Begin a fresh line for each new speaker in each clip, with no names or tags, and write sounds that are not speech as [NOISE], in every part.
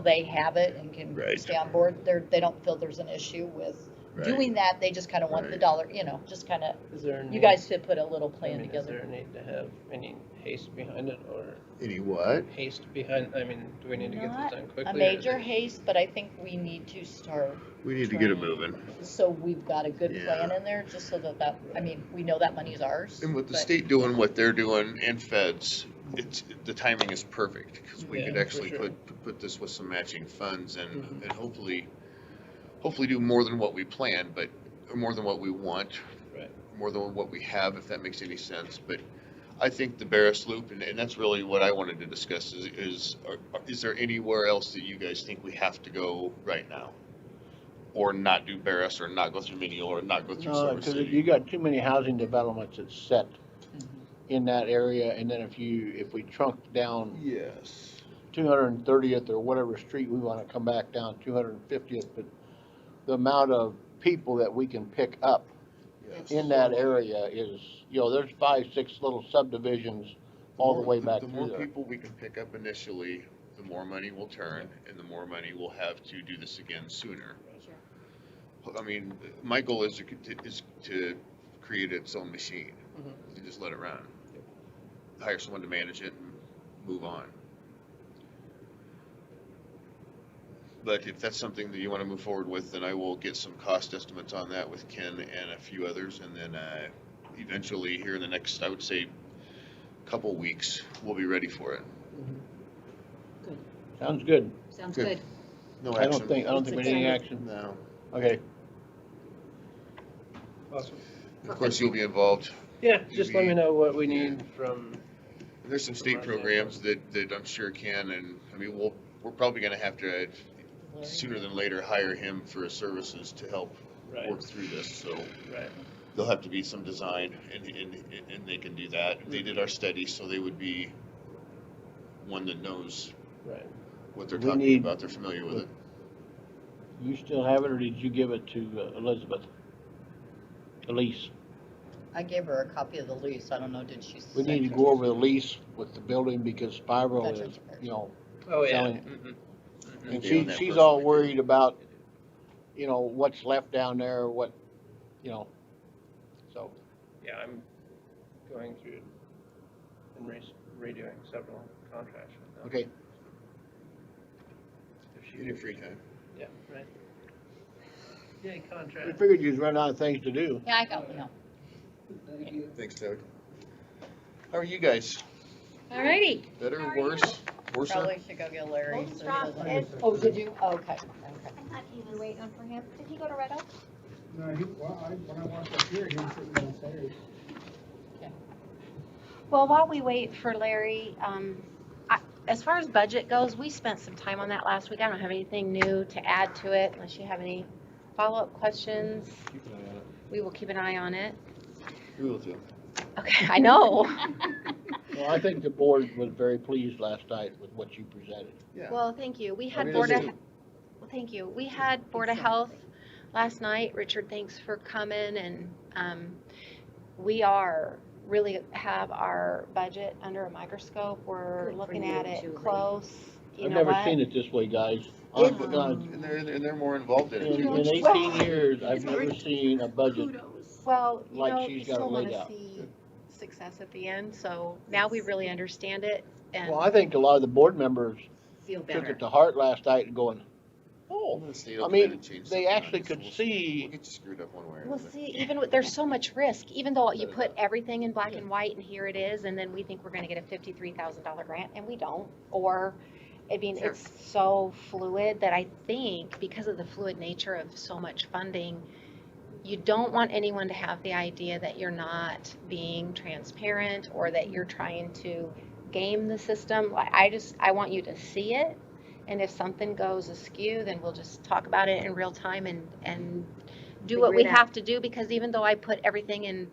they have it and can
Right.
stay on board. They're, they don't feel there's an issue with
Right.
doing that. They just kind of want the
Right.
dollar, you know, just kind of,
Is there a
you
need-
guys should put a little
I
plan
mean, Is there
together.
a need to have any haste behind it or
Any what?
haste behind, I mean, do we need to get
Not
this done quickly?
A
or
major
is
haste, but I think we need to start,
We need to get it
Trying.
moving.
so we've got a good plan
Yeah.
in there, just so that that, I mean, we know that money is ours.
And with the
but-
state doing what they're doing and feds, it's, the timing is perfect, because we
Yeah,
could
for
actually
sure.
put, put this with some matching funds and,
Mhm.
and hopefully, hopefully do more than what we planned, but, or more than what we want,
Right.
more than what we have, if that makes any sense, but I think the Barris Loop, and, and that's really what I wanted to discuss, is, is, are- are- is there anywhere else that you guys think we have to go right now? Or not do Barris, or not go through Mineola, or not go through
No,
Silver
because
City?
Uh, you got too many housing developments that's set in that area, and then if you, if we trunk down
Yes.
two hundred and thirtieth or whatever street, we wanna come back down two hundred and fiftieth, but the amount of people that we can pick up
Yes.
in that area is, you know, there's five, six little subdivisions all the
more-
way back
The
through
more
there.
people we can pick up initially, the more money we'll turn, and the more money we'll have to do this again sooner.
Sure.
I mean, my goal is to, cont- is to create its own machine, and just let it run. Hire someone to manage it and move on. But if that's something that you wanna move forward with, then I will get some cost estimates on that with Ken and a few others, and then, uh, eventually here in the next, I would say, couple weeks, we'll be ready for it.
Sounds good.
Sounds
Good.
good.
No
I
action.
don't think, I don't think we need any action.
No.
Okay,
Awesome.
Of course, you'll be involved.
Yeah, just let me know what we need from,
There's some state programs that, that I'm sure can, and, I mean, we'll, we're probably gonna have to, uh,
Larry?
sooner than later, hire him for his services to help
right,
work through this, so
right,
there'll have to be some design, and, and, and they can do that. They did our study, so they would be one that knows
right.
what they're
We
talking
need-
about, they're familiar with it.
you still have it, or did you give it to uh, Elizabeth? Elise?
I gave her a copy of the lease. I don't know, did she?
We need to
send
go
her?
over the lease with the building because Spiro
Veterans
is,
Affairs.
you know,
Oh, yeah.
Telling-
mhm, mhm.
Okay,
and
on
she,
that
she's
person
all
we
worried about, you know, what's left down there, what, you know. So,
Yeah, I'm going through and re- redoing several contracts with them.
okay,
If she
In your free time.
Yeah, right. Yay,
we
contract.
figured you'd run out of things to do.
Yeah, I got, no.
Thanks, Doug. How are you guys?
Alrighty,
Better,
How are you?
worse, worse?
Probably should go get Larry.
Hold
so he
strong,
doesn't-
Ed.
Oh, did you? Oh, Okay, okay.
I thought he was waiting for him. Did he go to Red Oak?
No, he, well, I, when I walked up here, he was sitting downstairs.
Well, while we wait for Larry, um, I, as far as budget goes, we spent some time on that last week. I don't have anything new to add to it unless you have any follow-up questions. We will keep an eye
[LAUGHS]
on it.
We will do.
Okay, I know.
Well, I think the board was very pleased last night with what you presented.
Yeah.
Well, thank you. We
mean,
had
is
Board of,
it-
well, thank you. We had Board of Health last night. Richard, thanks for coming and, um, we are, really have our budget under a microscope. We're
Good for
looking
you,
at it
Julie.
close, you
I've
know
never
what?
seen it this way, guys.
Well,
Honest to
but- uh,
[LAUGHS]
God,
And they're, and they're more involved in it
In
too.
in
which-
eighteen years, I've never seen a budget.
Well, you
like
know,
she's got
you
it
still
laid out.
wanna see success at the end, so now we really understand it and,
Well, I think a lot of the board members
feel
took
better.
it to heart last night and going,
I'm
oh,
gonna stay
I
open
mean,
and change
they
something on
actually
this.
could
We'll-
see
We'll get you screwed up one way or
well,
another.
see, even with, there's so much risk, even though you
Better
put
not.
everything in black and white and here it is, and then we think we're gonna get a fifty-three thousand dollar grant and we don't, or, I mean,
Sure.
it's so fluid that I think because of the fluid nature of so much funding, you don't want anyone to have the idea that you're not being transparent or that you're trying to game the system. Like, I just, I want you to see it. And if something goes askew, then we'll just talk about it in real time and, and do what
Figure
we
it out.
have to do because even though I put everything in,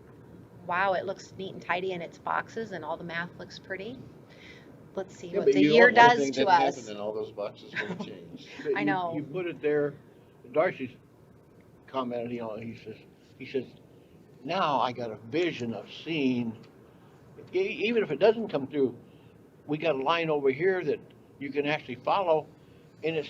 wow, it looks neat and tidy in its boxes and all the math looks pretty. Let's see
Yeah,
what
but
the
you
year
don't want
does
anything
to
Didn't happen,
us.
Then all those boxes will change.
But
I
you-
know.
You put it there, Darcy's commented, you know, he says, he says, now I got a vision of seeing, e- even if it doesn't come through, we got a line over here that you can actually follow, in its